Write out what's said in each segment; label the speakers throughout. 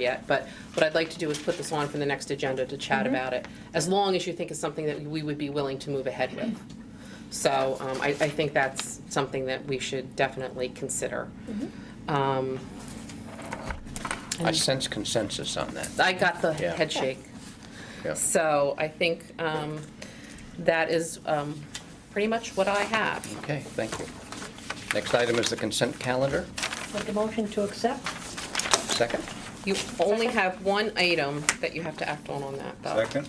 Speaker 1: yet, but what I'd like to do is put this on for the next agenda to chat about it, as long as you think it's something that we would be willing to move ahead with. So um, I, I think that's something that we should definitely consider. Um,
Speaker 2: I sense consensus on that.
Speaker 1: I got the
Speaker 2: Yeah.
Speaker 1: head shake.
Speaker 2: Yeah.
Speaker 1: So I think um, that is um, pretty much what I have.
Speaker 2: Okay, thank you. Next item is the consent calendar.
Speaker 3: Make a motion to accept?
Speaker 2: Second?
Speaker 1: You only have one item that you have to act on on that, though.
Speaker 4: Second?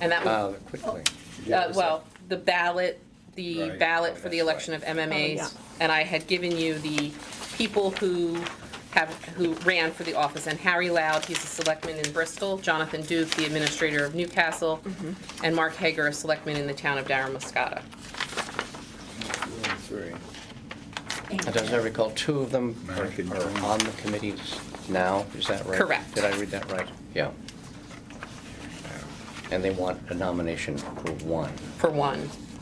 Speaker 1: And that
Speaker 2: Uh,
Speaker 1: was,
Speaker 2: Quickly.
Speaker 1: uh, well, the ballot, the
Speaker 4: Right,
Speaker 2: Oh,
Speaker 1: ballot for the
Speaker 4: that's right.
Speaker 1: election of MMAs.
Speaker 3: Oh,
Speaker 1: And I had given you the people who have, who ran for the office. And Harry Loud, he's a selectman in Bristol, Jonathan Duke, the administrator of Newcastle, and Mark Hager, a selectman in the town of Darren
Speaker 4: Three.
Speaker 2: And As I recall, two of them are
Speaker 4: American
Speaker 2: are
Speaker 4: Dream.
Speaker 2: on the committees now, is that right?
Speaker 1: Correct.
Speaker 2: Did I read that right? Yeah. And they want a nomination for one,
Speaker 1: for one.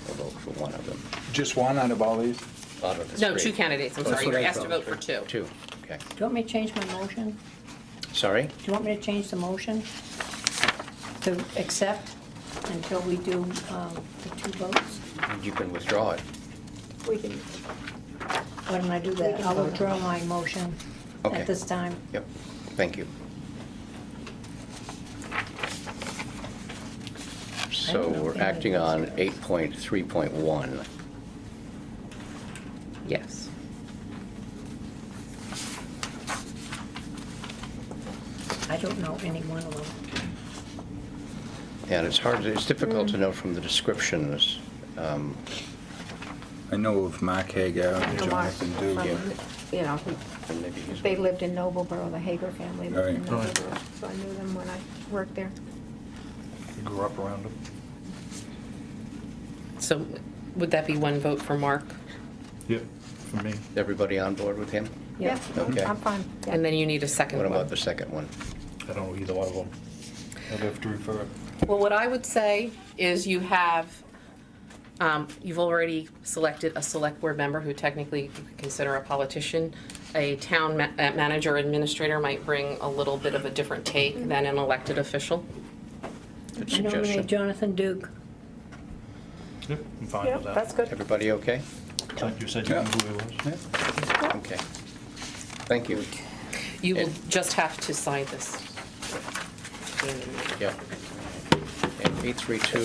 Speaker 2: a vote for one of them.
Speaker 4: Just one out of all these?
Speaker 2: Out of the
Speaker 1: No,
Speaker 2: three.
Speaker 1: two candidates, I'm
Speaker 2: Oh,
Speaker 1: sorry.
Speaker 2: two
Speaker 1: You were asked to vote
Speaker 2: candidates.
Speaker 1: for two.
Speaker 2: Two, okay.
Speaker 3: Do you want me to change my motion? Do
Speaker 2: Sorry?
Speaker 3: you want me to change the motion to accept until we do um, the two votes?
Speaker 2: You can withdraw it.
Speaker 5: We can,
Speaker 3: Why don't I do that? I'll withdraw my motion
Speaker 2: Okay.
Speaker 3: at this time.
Speaker 2: Yep, thank you. So
Speaker 3: know.
Speaker 2: we're acting on 8.3.1.
Speaker 1: Yes.
Speaker 3: I don't know any one of them.
Speaker 2: And it's hard, it's difficult to know from the descriptions. um,
Speaker 4: I know of Mark Hagar and
Speaker 5: No, Mark.
Speaker 4: Jonathan Dugan.
Speaker 5: you know,
Speaker 2: and maybe he's-
Speaker 5: they lived in Nobleboro, the Hager family lived in
Speaker 4: Right. Right.
Speaker 5: Nobleboro, so I knew them when I worked there.
Speaker 4: Grew up around him.
Speaker 1: So would that be one vote for Mark?
Speaker 6: Yep, for me.
Speaker 2: Everybody on board with him?
Speaker 5: Yeah,
Speaker 2: Okay.
Speaker 5: I'm fine. yeah.
Speaker 1: And then you need a second
Speaker 2: What
Speaker 1: one.
Speaker 2: about the second one?
Speaker 6: I don't know either one of them. I'd have to refer it.
Speaker 1: Well, what I would say is you have, um, you've already selected a select board member who technically you could consider a politician. A town ma- uh, manager administrator might bring a little bit of a different take
Speaker 3: Mm-hmm.
Speaker 1: than an elected official.
Speaker 2: Good
Speaker 3: I nominate
Speaker 2: suggestion.
Speaker 3: Jonathan Duke.
Speaker 6: Yep, I'm fine
Speaker 5: Yeah,
Speaker 6: with that.
Speaker 5: that's good.
Speaker 2: Everybody okay?
Speaker 6: Like you said, you knew who it was.
Speaker 2: Okay. Thank you.
Speaker 1: You will
Speaker 2: And-
Speaker 1: just have to sign this.
Speaker 2: Yep. And 832,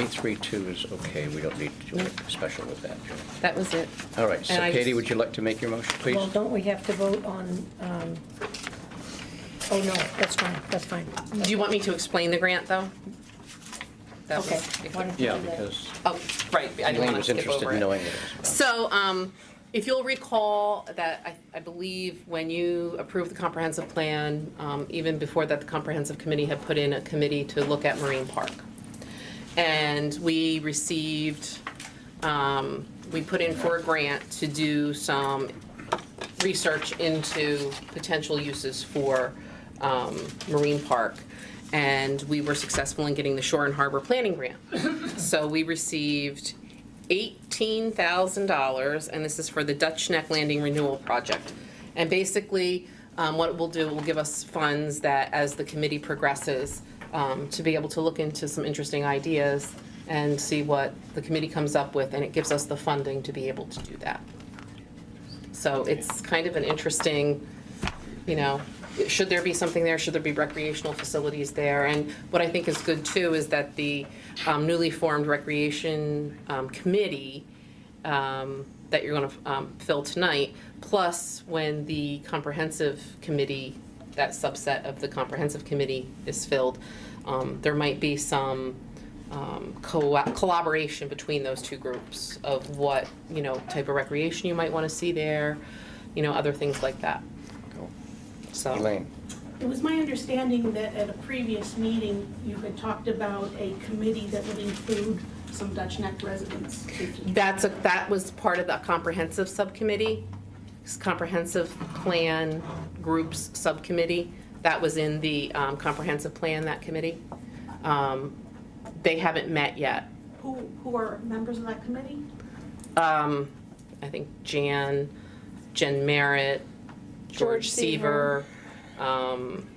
Speaker 2: 832 is okay, we don't need to do anything special with that.
Speaker 1: That was it.
Speaker 2: All right, so
Speaker 1: And I
Speaker 2: Katie,
Speaker 1: just-
Speaker 2: would you like to make your motion, please?
Speaker 3: Well, don't we have to vote on, um, oh, no, that's fine, that's fine.
Speaker 1: Do you want me to explain the grant, though? That was-
Speaker 3: Okay. why don't you
Speaker 2: Yeah,
Speaker 3: do that?
Speaker 2: because
Speaker 1: Oh, right, I didn't
Speaker 2: Elaine
Speaker 1: want to
Speaker 2: was
Speaker 1: skip
Speaker 2: interested
Speaker 1: over
Speaker 2: in
Speaker 1: it.
Speaker 2: knowing it.
Speaker 1: So, um, if you'll recall that, I, I believe when you approved the comprehensive plan, um, even before that, the comprehensive committee had put in a committee to look at Marine Park. And we received, um, we put in for a grant to do some research into potential uses for um, Marine Park. And we were successful in getting the Shore and Harbor Planning Grant. So we received $18,000, and this is for the Dutch Neck Landing Renewal Project. And basically, um, what it will do, it will give us funds that, as the committee progresses, um, to be able to look into some interesting ideas and see what the committee comes up with, and it gives us the funding to be able to do that. So it's kind of an interesting, you know, should there be something there? Should there be recreational facilities there? And what I think is good too is that the um, newly formed Recreation um, Committee um, that you're going to fill tonight, plus when the Comprehensive Committee, that subset of the Comprehensive Committee is filled, um, there might be some um, co- collaboration between those two groups of what, you know, type of recreation you might want to see there, you know, other things like that. So.
Speaker 2: Elaine,
Speaker 7: It was my understanding that at a previous meeting, you had talked about a committee that would include some Dutch Neck residents.
Speaker 1: That's, a that was part of the comprehensive subcommittee, s- comprehensive plan groups subcommittee. That was in the um, comprehensive plan, that committee. Um, They haven't met yet.
Speaker 7: Who, who are members of that committee?
Speaker 1: Um, I think Jan, Jen Merritt, George
Speaker 5: George
Speaker 1: Seaver,
Speaker 5: Seaver.
Speaker 1: Um,